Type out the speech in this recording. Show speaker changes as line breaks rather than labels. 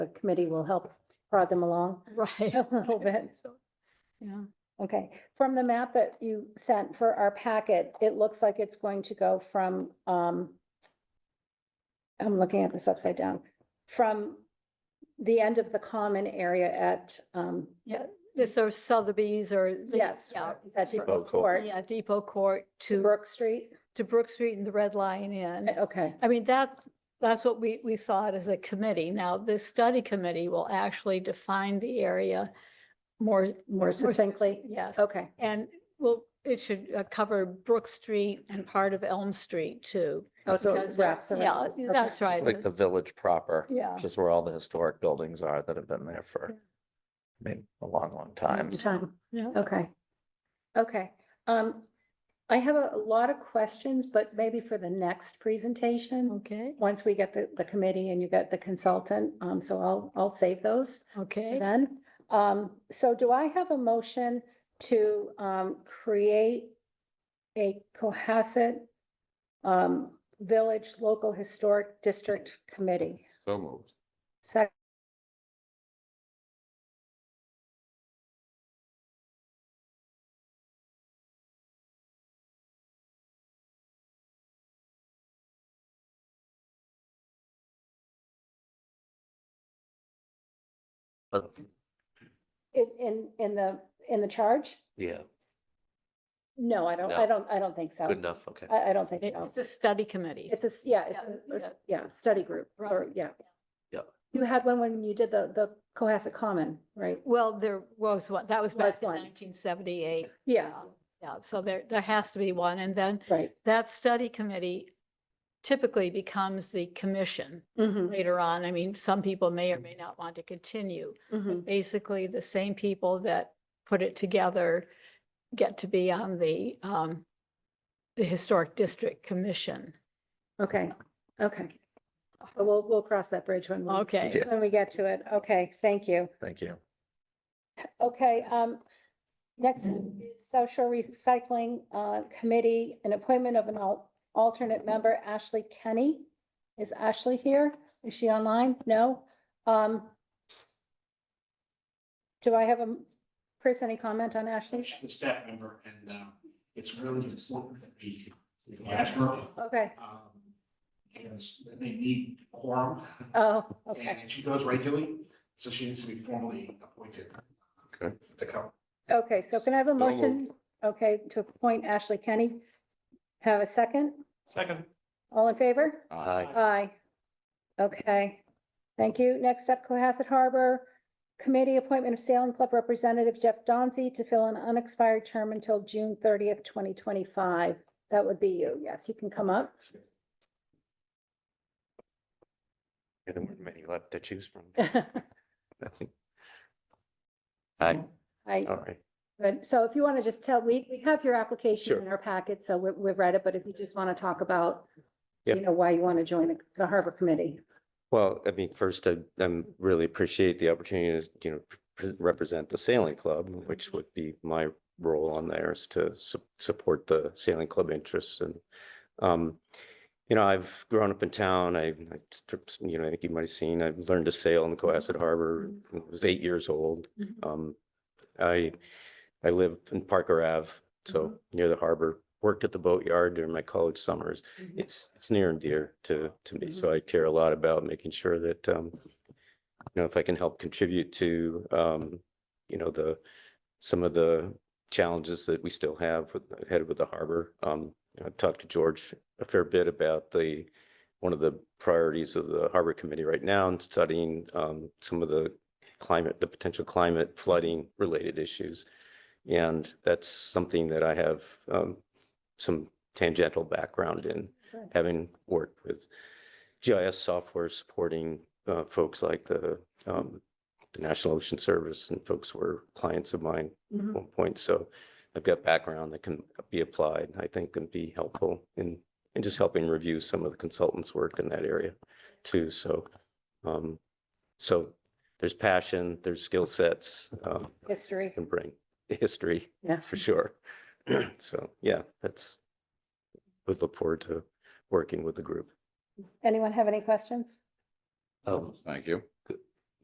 the committee will help prod them along
Right.
a little bit.
So, Yeah,
Okay, from the map that you sent for our packet, it looks like it's going to go from, um, I'm looking at this upside down, from the end of the common area at, um,
yeah, this are Sotheby's or. the-
yes,
Yeah,
is that
Depot
Depot
Court.
Court
yeah, Depot Court
to
to,
Brook Street?
to Brook Street and the Red Lion Inn.
Okay,
I mean, that's, that's what we, we saw it as a committee. Now, this study committee will actually define the area more.
more succinctly,
Yes,
okay,
and well, it should uh, cover Brook Street and part of Elm Street too.
oh, so it
because there-
wraps around.
Yeah,
Okay.
that's right.
It's like the village proper,
Yeah.
which is where all the historic buildings are that have been there for, I mean, a long, long time. so.
Time.
Yeah.
Okay. Okay, um, I have a lot of questions, but maybe for the next presentation,
Okay,
once we get the, the committee and you get the consultant, um, so I'll, I'll save those for
okay.
then. Um, so do I have a motion to, um, create a Cohasset, um, Village Local Historic District Committee?
So moved.
Second,
But,
in, in, in the, in the charge?
yeah,
No, I don't, I
No.
don't, I don't think so.
good enough, okay.
I, I don't think
It-
so.
It's a study committee.
It's a, s- yeah,
Yeah,
it's, a-
yeah.
a- yeah, study group,
Right.
or, yeah.
Yeah.
You had one when you did the, the Cohasset Common, right?
Well, there was one, that was
Was
back in
one.
nineteen seventy-eight.
Yeah,
Yeah, so there, there has to be one. And then
right.
that study committee typically becomes the commission
Mhm,
later on. I mean, some people may or may not want to continue.
mhm.
Basically, the same people that put it together get to be on the, um, the Historic District Commission.
Okay, okay. But We'll, we'll cross that bridge when we,
Okay,
Yeah.
when we get to it. Okay, thank you.
Thank you.
Okay, um, next is Social Recycling, uh, Committee, an appointment of an al- alternate member, Ashley Kenny. Is Ashley here? Is she online? No? Um, do I have a, Chris, any comment on Ashley?
She's a staff member and um, it's really important that we we ask her.
Okay,
um, Because they need quorum
oh, okay,
and she goes regularly, so she needs to be formally appointed
Okay.
to come.
okay, so can I have a
So moved.
motion? Okay, to appoint Ashley Kenny. Have a second?
Second.
All in favor?
Aye.
Aye. Okay, thank you. Next up, Cohasset Harbor Committee Appointment of Sailing Club Representative Jeff Donzi to fill an unexpired term until June thirtieth, twenty twenty-five. That would be you. Yes, you can come up.
There weren't many left to choose from.
I,
Aye, all right.
but, so if you want to just tell, we, we have your application
Sure.
in our packet, so we, we've read it, but if you just want to talk about, you
Yep.
know, why you want to join the- the Harbor Committee.
Well, I mean, first, I, um really appreciate the opportunity to, you know, pre- represent the sailing club, which would be my role on there is to su- support the sailing club interests and, um, you know, I've grown up in town. I, I st- you know, I think you might have seen, I learned to sail in the
Mm-hmm.
Cohasset Harbor. when I was eight years old.
Mhm.
Um, I, I live in Parker Ave,
Mm-hmm.
so near the harbor, worked at the boatyard during my college summers
Mm-hmm.
it's it's near and dear to to me, so I care a lot about making sure that um, you know, if I can help contribute to um, you know, the some of the challenges that we still have with- ahead with the harbor. Um, I talked to George a fair bit about the one of the priorities of the harbor committee right now and studying um some of the climate, the potential climate flooding related issues. And that's something that I have um some tangential background in,
Sure.
having worked with GIS software supporting uh, folks like the, um, the National Ocean Service and folks were clients of mine at
Mhm.
one point. So I've got background that can be applied, I think, and be helpful in, in just helping review some of the consultants' work in that area too. So, um, so there's passion, there's skill sets, um,
History.
can bring history
Yeah.
for sure. So, yeah, that's, would look forward to working with the group.
Anyone have any questions?
Um,
Oh, Thank you.